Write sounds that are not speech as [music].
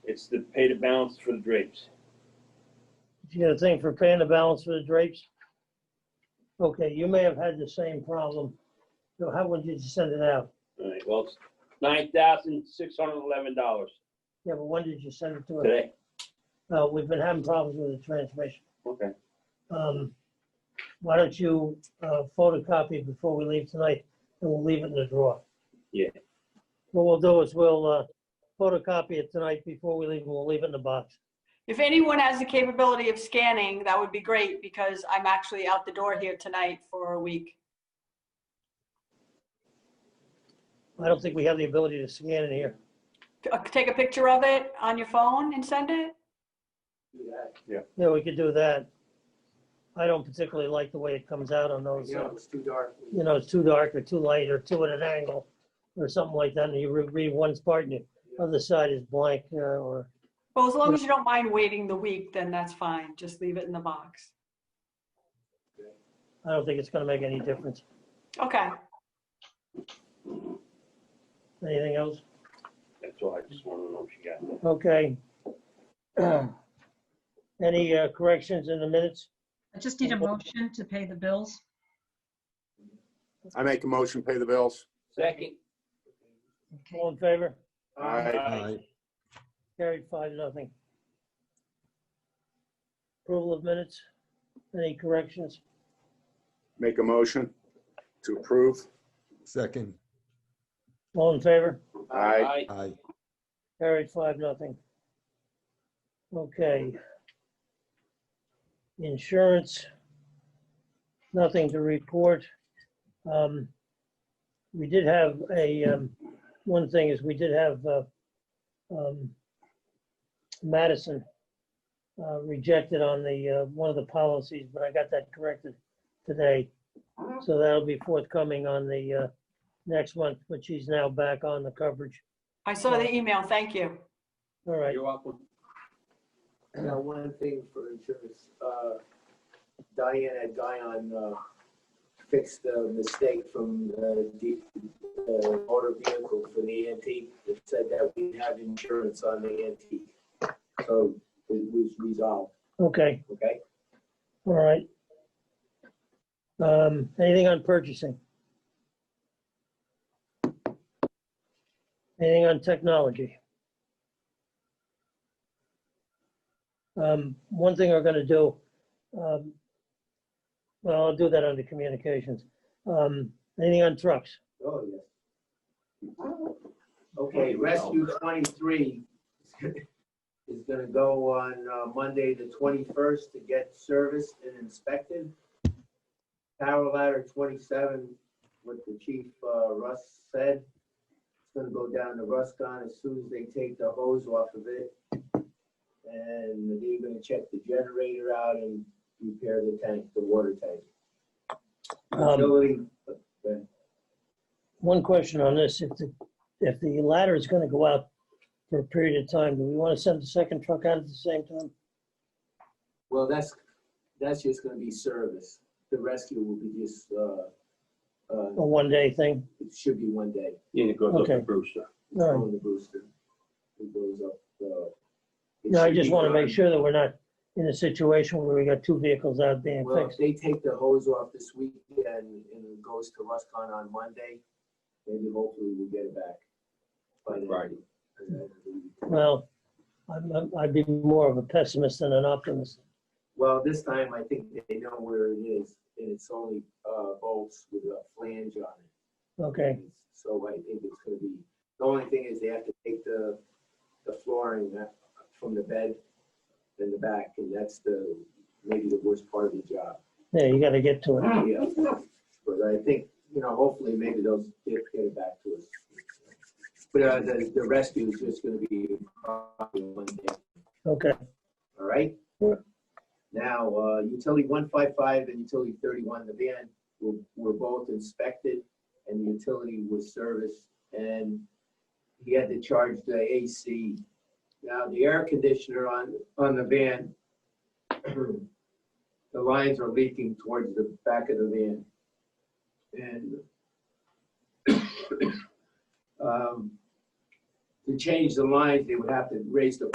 It's the pay to balance for the drapes. You got a thing for paying the balance for the drapes? Okay, you may have had the same problem. So how would you send it out? All right, well, it's nine thousand six hundred and eleven dollars Yeah, but when did you send it to us? today. Uh, we've been having problems with the transmission. Okay, Um, why don't you, uh, photocopy before we leave tonight and we'll leave it in the drawer? Yeah. What we'll do is we'll, uh, photocopy it tonight before we leave and we'll leave it in the box. If anyone has the capability of scanning, that would be great because I'm actually out the door here tonight for a week. I don't think we have the ability to scan it here. Uh, Take a picture of it on your phone and send it. Yeah, we could do that. I don't particularly like the way it comes out on those. You uh, know, it's too dark. you know, it's too dark or too light or too at an angle or something like that, and you re- read one part and the other side is blank uh, or, Well, as long as you don't mind waiting the week, then that's fine. Just leave it in the box. I don't think it's gonna make any difference. Okay, Anything else? that's all. I just wanted to know if you got that. Okay. [clears throat] Any uh, corrections in the minutes? I just need a motion to pay the bills. I make a motion, pay the bills. Second. Okay. All in favor? Aye. Aye. Carried five, nothing. Approval of minutes? Any corrections? Make a motion to approve. Second, All in favor? Aye. aye. Carried five, nothing. Okay. Insurance. Nothing to report. Um, We did have a, um, one thing is we did have uh, um, Madison uh, rejected on the, uh, one of the policies, but I got that corrected today. So that'll be forthcoming on the uh, next month, but she's now back on the coverage. I saw the email. Thank you. All right. You're welcome. Now, one thing for insurance, uh, Diane had Guyon, uh, fix the mistake from the, D- the motor vehicle for the antique. It said that we have insurance on the antique. So it was resolved, Okay. okay? All right. Um, anything on purchasing? Anything on technology? Um, one thing we're gonna do, um, well, I'll do that under communications. Um, anything on trucks? Oh, yes. Okay, Rescue 23 is gonna go on uh, Monday, the 21st, to get serviced and inspected. Power Ladder 27, what the chief, uh, Russ said, it's gonna go down to Ruscon as soon as they take the hose off of it. And they're gonna check the generator out and repair the tank, the water tank. Um, Utility one question on this, if the, if the ladder is gonna go out for a period of time, do we wanna send the second truck out at the same time? Well, that's, that's just gonna be service. The rescue will be just, uh, uh, A one-day thing? it should be one day Yeah, it goes up to Okay. Brewster. All right. on the booster. It goes up, uh. it No, I should just be want to done. make sure that we're not in a situation where we got two vehicles out being Well, if fixed. they take the hose off this weekend and it goes to Ruscon on Monday, maybe hopefully we'll get it back. by then. Right. Well, I'm, I'm- I'd be more of a pessimist than an optimist. Well, this time I think they know where it is and it's only, uh, bolts with a flange on it. Okay, So I think it's gonna be, the only thing is they have to take the, the flooring that- from the bed in the back, and that's the, maybe the worst part of the job. yeah, you got to get to it. Yeah. But I think, you know, hopefully maybe those kids get it back to us. But uh, the, the rescue is just gonna be probably one day, Okay, all right? Sure. Now, uh, utility one five five and utility thirty-one, the van were, were both inspected and the utility was serviced, and he had to charge the AC. Now, the air conditioner on, on the van, [clears throat] the lines are leaking towards the back of the van. And [coughs] um, to change the lines, they would have to raise the